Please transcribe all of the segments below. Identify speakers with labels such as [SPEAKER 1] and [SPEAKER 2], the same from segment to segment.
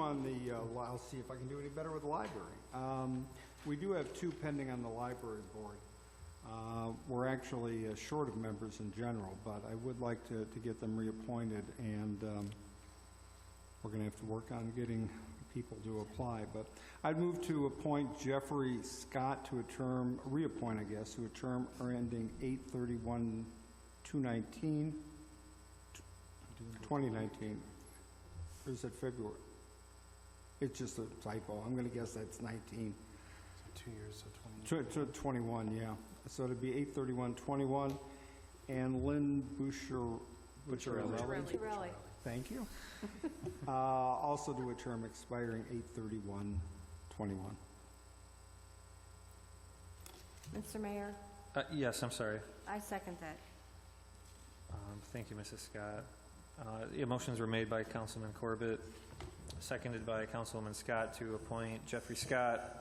[SPEAKER 1] On the, uh, li- I'll see if I can do any better with the library. Um, We do have two pending on the library board. Uh, We're actually uh, short of members in general, but I would like to, to get them reappointed, and um, we're going to have to work on getting people to apply. But I'd move to appoint Jeffrey Scott to a term, reappoint, I guess, to a term ending 8/31/2019, 2019. Or is it February? It's just a typo. I'm going to guess that's 19,
[SPEAKER 2] Two years, so 20.
[SPEAKER 1] tw- tw- 21, yeah. So it'd be 8/31/21. And Lynn Boucher, Butcherelli.
[SPEAKER 3] Torelli.
[SPEAKER 1] Thank you. Uh, Also do a term expiring 8/31/21.
[SPEAKER 3] Mr. Mayor,
[SPEAKER 4] Uh, Yes, I'm sorry.
[SPEAKER 3] I second that.
[SPEAKER 4] Um, Thank you, Mrs. Scott. Uh, The motions were made by Councilman Corbett, seconded by Councilwoman Scott to appoint Jeffrey Scott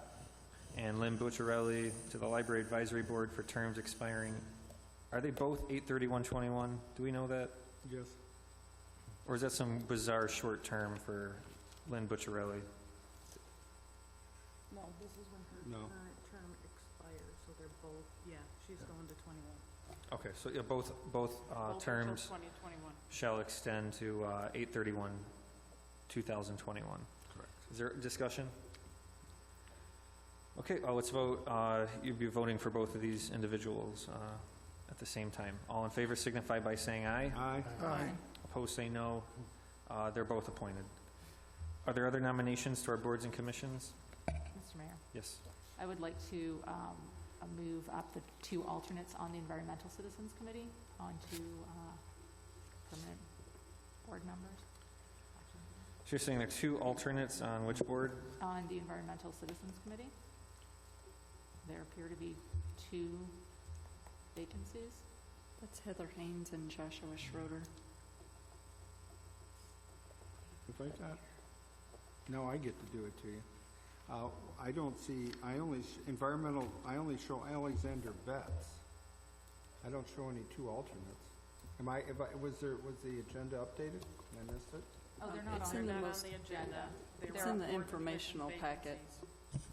[SPEAKER 4] and Lynn Bucciarelli to the Library Advisory Board for terms expiring, are they both 8/31/21? Do we know that?
[SPEAKER 1] Yes.
[SPEAKER 4] Or is that some bizarre short term for Lynn Bucciarelli?
[SPEAKER 5] No, this is when her
[SPEAKER 1] No.
[SPEAKER 5] current term expires, so they're both, yeah, she's going to 21.
[SPEAKER 4] Okay, so yeah, both, both uh,
[SPEAKER 5] Both until
[SPEAKER 4] terms
[SPEAKER 5] 2021.
[SPEAKER 4] shall extend to uh, 8/31/2021.
[SPEAKER 2] Correct.
[SPEAKER 4] Is there discussion? Okay, uh, let's vote. Uh, You'd be voting for both of these individuals uh, at the same time. All in favor signify by saying aye.
[SPEAKER 1] Aye.
[SPEAKER 2] Aye.
[SPEAKER 4] Opposed, say no. Uh, They're both appointed. Are there other nominations to our boards and commissions?
[SPEAKER 6] Mr. Mayor,
[SPEAKER 4] Yes.
[SPEAKER 6] I would like to um, uh, move up the two alternates on the Environmental Citizens Committee onto uh, permanent board members.
[SPEAKER 4] So you're saying there are two alternates on which board?
[SPEAKER 6] On the Environmental Citizens Committee, there appear to be two vacancies.
[SPEAKER 7] That's Heather Haynes and Joshua Schroeder.
[SPEAKER 1] If I thought, no, I get to do it to you. Uh, I don't see, I only, sh- environmental, I only show Alexander Betts. I don't show any two alternates. Am I, if I, was there, was the agenda updated? Did I miss it?
[SPEAKER 6] Oh, they're
[SPEAKER 7] not
[SPEAKER 6] not
[SPEAKER 7] It's
[SPEAKER 6] on
[SPEAKER 7] on in
[SPEAKER 5] They're
[SPEAKER 7] the
[SPEAKER 5] not on
[SPEAKER 7] most-
[SPEAKER 5] the agenda. They
[SPEAKER 6] It's
[SPEAKER 5] were
[SPEAKER 7] in the
[SPEAKER 5] board
[SPEAKER 7] informational
[SPEAKER 5] commission
[SPEAKER 7] packet.
[SPEAKER 5] vacancies.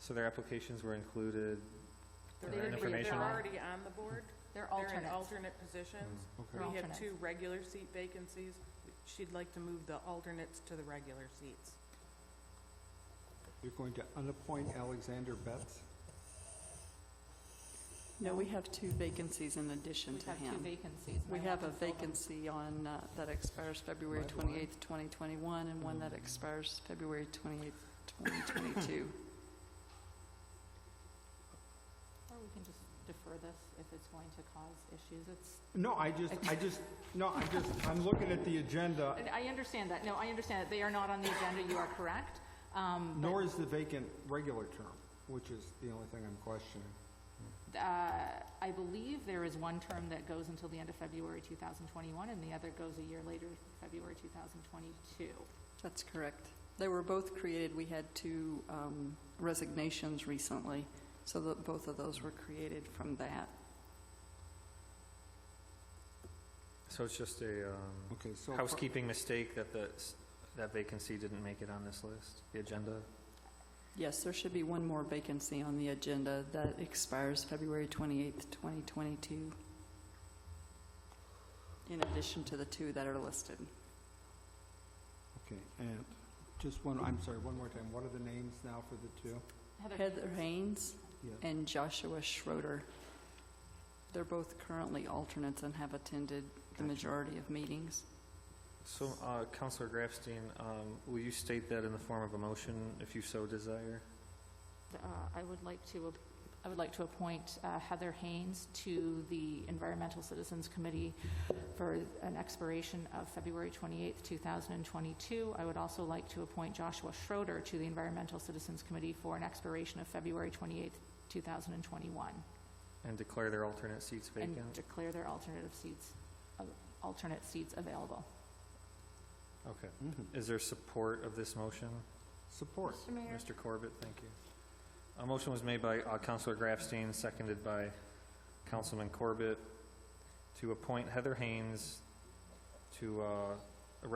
[SPEAKER 4] So their applications were included.
[SPEAKER 5] They're
[SPEAKER 4] They're
[SPEAKER 5] already-
[SPEAKER 4] informational.
[SPEAKER 5] They're already on the board.
[SPEAKER 6] They're
[SPEAKER 5] They're in
[SPEAKER 6] alternates.
[SPEAKER 5] alternate positions.
[SPEAKER 4] Mm,
[SPEAKER 1] Okay.
[SPEAKER 6] They're
[SPEAKER 5] We have
[SPEAKER 6] alternates.
[SPEAKER 5] two regular seat vacancies. She'd like to move the alternates to the regular seats.
[SPEAKER 1] You're going to unappoint Alexander Betts?
[SPEAKER 7] No, we have two vacancies in addition
[SPEAKER 6] We
[SPEAKER 7] to
[SPEAKER 6] have two
[SPEAKER 7] him.
[SPEAKER 6] vacancies. and
[SPEAKER 7] We
[SPEAKER 6] I
[SPEAKER 7] have a
[SPEAKER 6] want to fill them.
[SPEAKER 7] vacancy on, uh, that expires February
[SPEAKER 1] Right, why?
[SPEAKER 7] 28th, 2021, and one that expires February 28th, 2022.
[SPEAKER 6] Or we can just defer this if it's going to cause issues. It's
[SPEAKER 1] No, I just, I just, no, I just, I'm looking at the agenda,
[SPEAKER 6] And I understand that, no, I understand that, they are not on the agenda, you are correct. Um, but,
[SPEAKER 1] nor is the vacant regular term, which is the only thing I'm questioning.
[SPEAKER 6] uh, I believe there is one term that goes until the end of February 2021, and the other goes a year later, February 2022.
[SPEAKER 7] That's correct. They were both created, we had two um, resignations recently, so that both of those were created from that.
[SPEAKER 4] So it's just a um,
[SPEAKER 1] Okay, so.
[SPEAKER 4] housekeeping mistake that the, that vacancy didn't make it on this list, the agenda?
[SPEAKER 7] Yes, there should be one more vacancy on the agenda that expires February 28th, 2022, in addition to the two that are listed.
[SPEAKER 1] Okay, and just one, I'm sorry, one more time, what are the names now for the two?
[SPEAKER 7] Heather Haynes
[SPEAKER 1] Yeah.
[SPEAKER 7] and Joshua Schroeder. They're both currently alternates and have attended the majority of meetings.
[SPEAKER 4] So, uh, Counselor Grafstein, um, will you state that in the form of a motion, if you so desire?
[SPEAKER 6] Uh, I would like to, ap- I would like to appoint uh, Heather Haynes to the Environmental Citizens Committee for an expiration of February 28th, 2022. I would also like to appoint Joshua Schroeder to the Environmental Citizens Committee for an expiration of February 28th, 2021,
[SPEAKER 4] And declare their alternate seats
[SPEAKER 6] and
[SPEAKER 4] vacant?
[SPEAKER 6] declare their alternative seats, uh, alternate seats available.
[SPEAKER 4] Okay. Is there support of this motion?
[SPEAKER 1] Mm-hmm. Support.
[SPEAKER 3] Mr. Mayor,
[SPEAKER 4] Mr. Corbett, thank you. A motion was made by uh, Counselor Grafstein, seconded by Councilman Corbett, to appoint Heather Haynes to uh,